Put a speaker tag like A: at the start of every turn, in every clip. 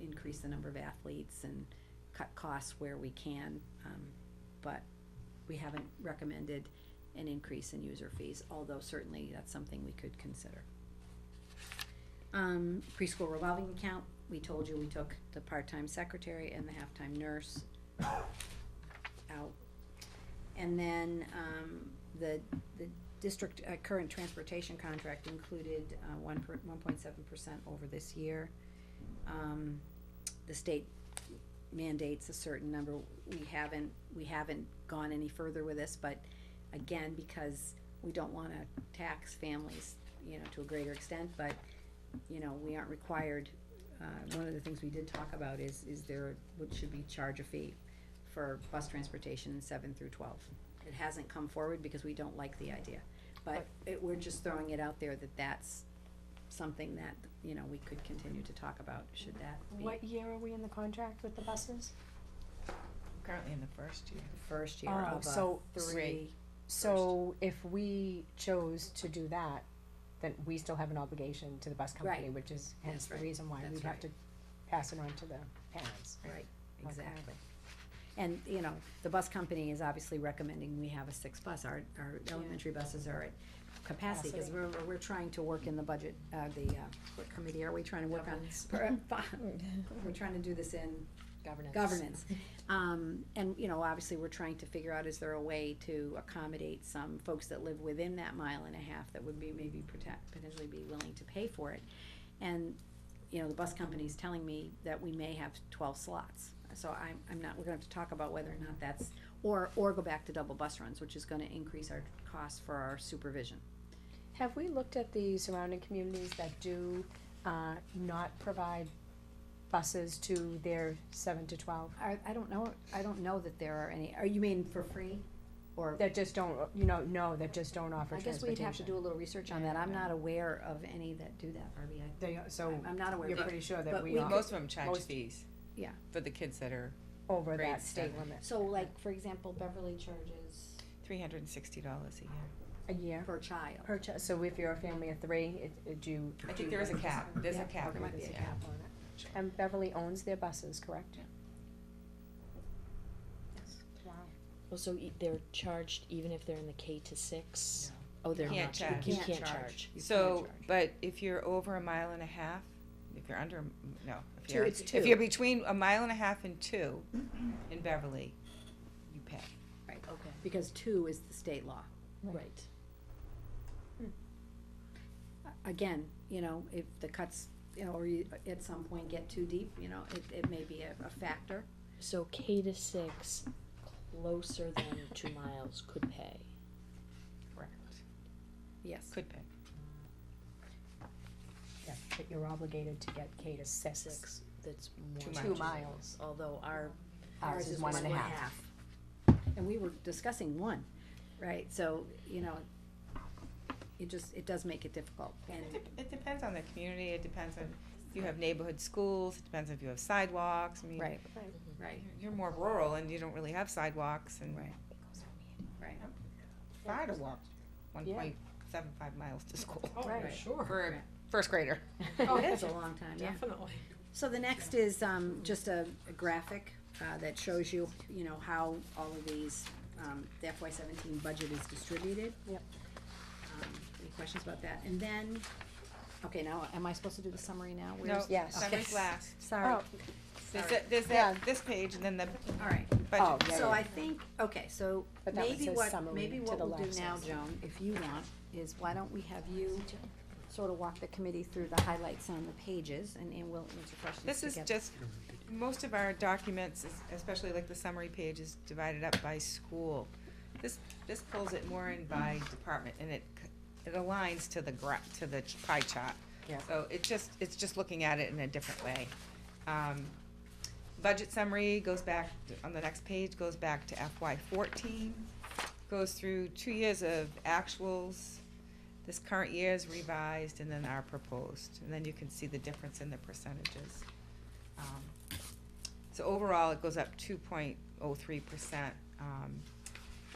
A: increase the number of athletes and cut costs where we can. Um, but we haven't recommended an increase in user fees, although certainly that's something we could consider. Um, preschool revolving account, we told you we took the part-time secretary and the half-time nurse out. And then, um, the, the district, uh, current transportation contract included, uh, one per, one point seven percent over this year. Um, the state mandates a certain number, we haven't, we haven't gone any further with this, but again, because we don't wanna tax families, you know, to a greater extent, but, you know, we aren't required. Uh, one of the things we did talk about is, is there, what should we charge a fee for bus transportation in seven through twelve? It hasn't come forward because we don't like the idea, but it, we're just throwing it out there that that's something that, you know, we could continue to talk about, should that be
B: What year are we in the contract with the buses?
C: Currently in the first year.
A: the first year
B: Oh,
A: of
B: so
A: a Ah, three.
B: So if we chose to do that, then we still have an obligation to the bus company,
A: Right.
B: which is hence
A: That's
B: the
A: right.
B: reason why
A: That's
B: we'd have
A: right.
B: to pass it on to the parents.
A: Right,
B: Okay.
A: exactly. And, you know, the bus company is obviously recommending we have a six bus, our, our elementary buses are at capacity, cause
B: Capacity.
A: we're, we're trying to work in the budget, uh, the, uh, what committee are we trying to work on? We're trying to do this in
B: Governance.
A: governance. Um, and, you know, obviously, we're trying to figure out, is there a way to accommodate some folks that live within that mile and a half that would be maybe protect, potentially be willing to pay for it? And, you know, the bus company's telling me that we may have twelve slots. So I'm, I'm not, we're gonna have to talk about whether or not that's, or, or go back to double bus runs, which is gonna increase our cost for our supervision.
B: Have we looked at the surrounding communities that do, uh, not provide buses to their seven to twelve?
A: I, I don't know, I don't know that there are any, are you mean for free? Or
B: That just don't, you know, no, that just don't offer
A: I guess
B: transportation.
A: we'd have to do a little research on that, I'm not aware of any that do that, Barbie, I
B: They, so
A: I'm not aware,
B: you're
A: but-
B: pretty sure that
A: but
B: we
A: we
B: are
C: Most of them charge
B: Most-
C: fees.
A: Yeah.
C: For the kids that are
B: over
C: grade
B: that state
C: seven.
B: limit
A: so like, for example, Beverly charges
C: three hundred and sixty dollars a year.
B: a year.
A: per child.
B: Per chi- so if you're a family of three, it, it, do you?
C: I think there is a cap, there's a
A: Yeah,
C: cap,
A: There might be a
C: yeah.
A: cap on it.
B: And Beverly owns their buses, correct?
C: Yeah.
B: Wow.
D: Well, so e- they're charged even if they're in the K to six? Oh, they're
C: Can't
D: not,
C: charge.
D: you
A: You
D: can't charge.
A: You can't
C: So,
A: charge.
C: but if you're over a mile and a half, if you're under, a m- no, if
A: Two-
C: you're,
A: it's two.
C: if you're between a mile and a half and two in Beverly, you pay.
D: Okay,
A: Because two is the state law.
D: right.
A: Again, you know, if the cuts, you know, or you, at some point get too deep, you know, it, it may be a, a factor.
D: So K to six, closer than two miles could pay.
C: Correct.
A: Yes.
C: Could pay.
B: Yeah, but you're obligated to get K to six,
D: Six, that's
C: Two
D: more.
B: two
C: miles.
B: miles.
D: Although our,
B: Ours is one and a half.
A: And we were discussing one, right, so, you know, it just, it does make it difficult, and,
C: It dep- It depends on the community, it depends on, if you have neighborhood schools, it depends if you have sidewalks, I mean,
A: right,
C: you're-
D: Mm-hmm.
A: right,
C: you're more rural and you don't really have sidewalks and
A: Right. right.
C: far to walk one
B: Yeah.
C: point seven five miles to school
E: Oh,
B: Right.
E: for sure.
C: for a first grader.
E: Oh,
A: That's a long time, yeah.
E: Definitely.
A: So the next is, um, just a a graphic, uh, that shows you, you know, how all of these, um, the FY seventeen budget is distributed.
B: Yep.
A: Um, Any questions about that? And then, okay, now, am I supposed to do the summary now?
C: No,
A: Where's-
B: Yes.
C: summer's
A: Okay.
C: last.
B: Oh.
A: Sorry,
C: There's
A: Sorry.
C: that, there's that, this page and then the uh,
A: all right.
B: Oh,
C: budget.
B: yeah,
A: So
B: yeah.
A: I think, okay, so
B: But that one
A: maybe
B: says
A: what,
B: summary
A: maybe
B: to
A: what
B: the
A: we'll do
B: left
A: now,
B: says-
A: Joan, if you want, is why don't we have you sort of walk the committee through the highlights on the pages and, and we'll answer questions
C: This
A: together.
C: is just, most of our documents, es- especially like the summary page is divided up by school. This, this pulls it more in by department and it, c- it aligns to the gra, to the ch- pie chart.
B: Yeah.
C: So it just, it's just looking at it in a different way. Um, budget summary goes back, on the next page, goes back to FY fourteen, goes through two years of actuals, this current year's revised, and then our proposed, and then you can see the difference in the percentages. Um, So overall, it goes up two point oh three percent. Um,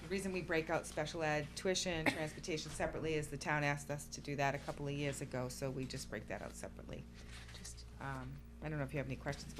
C: The reason we break out special ed tuition, transportation separately is the town asked us to do that a couple of years ago, so we just break that out separately. Um, I don't know if you have any questions about